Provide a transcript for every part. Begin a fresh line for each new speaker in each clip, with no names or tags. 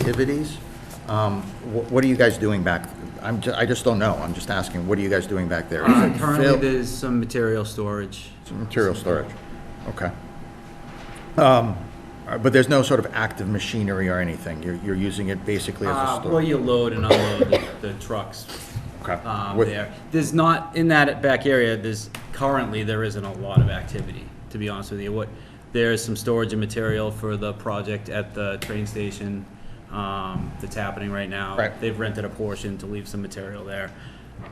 activities. Um, wh- What are you guys doing back? I'm, ju- I just don't know. I'm just asking, what are you guys doing back there? Is it
Currently,
fill-
there's some material storage.
Material storage, okay. Um, uh, But there's no sort of active machinery or anything? You're, you're using it basically as a
Uh, Where
store?
you load and unload the- the trucks
Okay.
um,
With-
there. There's not, in that back area, there's, currently, there isn't a lot of activity, to be honest with you. What, there is some storage and material for the project at the train station um, that's happening right now.
Right.
They've rented a portion to leave some material there.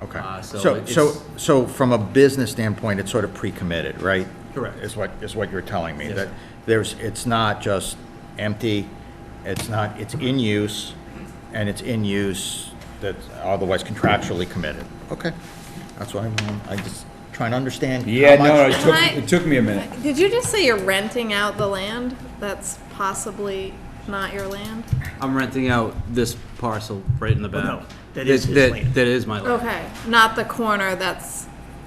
Okay.
Uh,
So,
So,
so,
it's-
so from a business standpoint, it's sort of pre-committed, right?
Correct.
Is what, is what you're telling me?
Yes.
That there's, it's not just empty, it's not, it's in use, and it's in use that's otherwise contractually committed. Okay. That's why I'm, I just trying to understand. how
Yeah, no,
much-
it took,
Can I-
it took me a minute.
Did you just say you're renting out the land that's possibly not your land?
I'm renting out this parcel right in the back.
Oh, no, that is his land.
That is my land,
Okay, not the corner that's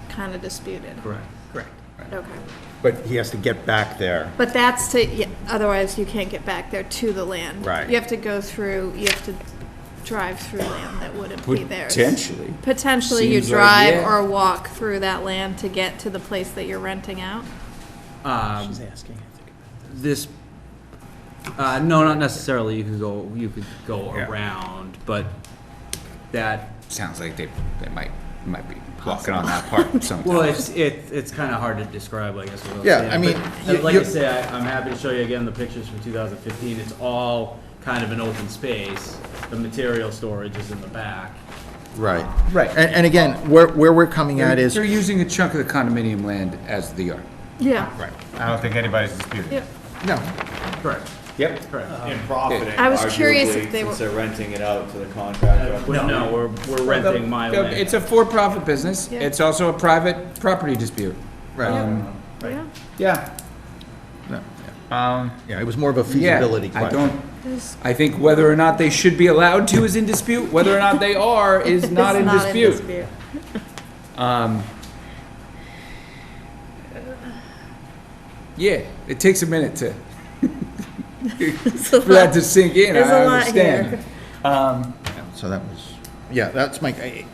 kind of disputed.
correct.
Correct.
Okay.
But he has to get back there.
But that's to, yeah, otherwise you can't get back there to the land.
Right.
You have to go through, you have to drive through land that wouldn't be theirs.
Potentially.
Potentially you
Seems like,
drive
yeah.
or walk through that land to get to the place that you're renting out?
Um,
She's asking.
this, uh, no, not necessarily, you could go, you could go
Yeah.
around, but that,
Sounds like they, they might, might be walking on that part
well,
sometime.
it's, it, it's kinda hard to describe, I guess. without
Yeah,
saying,
I mean,
but,
you-
Like I
you-
say, I, I'm happy to show you again the pictures from two thousand fifteen, it's all kind of an open space, the material storage is in the back.
Right.
Right.
And, and again, where, where we're coming at is.
They're using a chunk of the condominium land as the yard.
Yeah.
Right.
I don't think anybody's disputing.
Yeah.
No,
Correct.
Yep.
Correct.
and profiting.
I was curious if
arguably,
they were-
Since they're renting it out to the contractor.
But no, we're, we're renting my land.
It's a for-profit business.
Yeah.
It's also a private property dispute.
right.
Yeah.
Yeah.
Um,
Yeah, it was more of a
Yeah.
feasibility
I
question.
don't,
There's-
I think whether or not they should be allowed to is in dispute. Whether or not they are is
It's
not in dispute. Um, yeah, it takes a minute to for that to sink in.
There's
I
a lot here.
understand. Um,
So that was, yeah, that's my, I-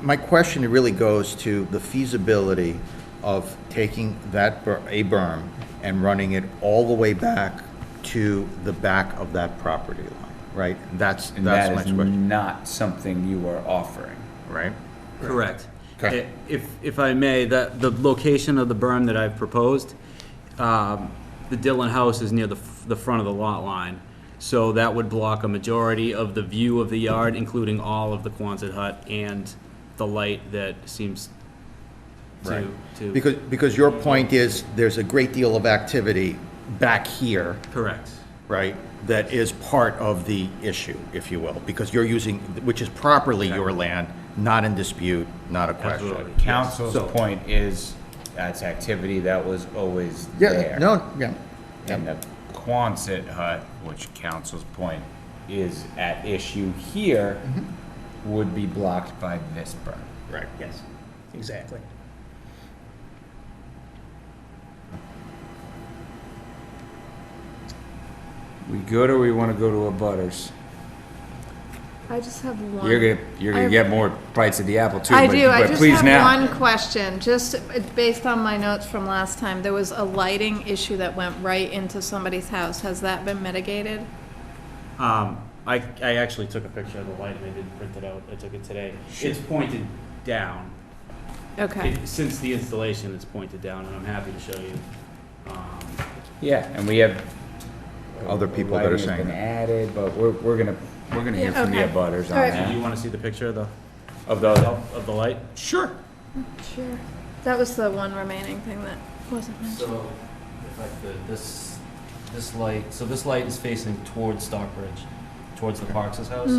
my question really goes to the feasibility of taking that, ber- a berm and running it all the way back to the back of that property line, right? That's,
and that
that's my
is
question,
not something you are offering.
right?
Correct.
Okay.
I- If, if I may, the, the location of the berm that I've proposed, um, the Dillon House is near the, f- the front of the lot line. So that would block a majority of the view of the yard, including all of the Quonset hut and the light that seems to,
Right.
to.
Because, because your point is, there's a great deal of activity back here,
Correct.
right? That is part of the issue, if you will, because you're using, which is properly your land, not in dispute, not a question.
Absolutely.
Council's
So-
point is,
That's activity that was always
Yeah, no, yeah.
and the Quonset hut, which council's point is at issue here, would be blocked by this berm.
Right.
yes, exactly.
We good or we want to go to a butters?
I just have one.
You're gonna you're gonna
I-
get more bites of the apple too.
I
but,
do, I
but
just
please now.
have one question, just uh, based on my notes from last time, there was a lighting issue that went right into somebody's house, has that been mitigated?
Um, I, I actually took a picture of the light and I didn't print it out. I took it today. It's pointed down.
Okay,
It- Since the installation, it's pointed down and I'm happy to show you. Um,
Yeah, and we have.
Other people that are
Lighting has
saying
Been
that.
added, but we're, we're gonna, we're gonna hear
Yeah,
from the
okay.
abutters on
All right.
Do you
that.
want to see the picture of the,
Of the,
of the light?
sure.
sure, that was the one remaining thing that wasn't mentioned.
So, if I could, this, this light, so this light is facing towards Stockbridge, towards the Parks' house.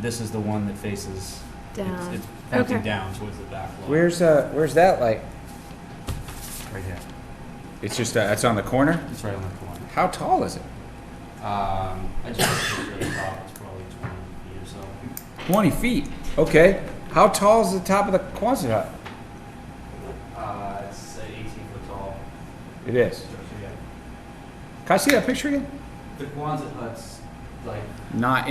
This is the one that faces, it's
Mm-hmm. Down.
it's pointing
Okay.
down towards the back lawn.
Where's, uh, where's that light?
Right here.
It's just, uh, it's on the corner?
It's right on the corner.
How tall is it?
Um, I just took a picture of the top, it's probably twenty feet or so.
Twenty feet. Okay. How tall is the top of the Quonset hut?
Uh, it's eighteen foot tall
It is.
structure, yeah.
Can I see that picture again?
The Quonset hut's like
Not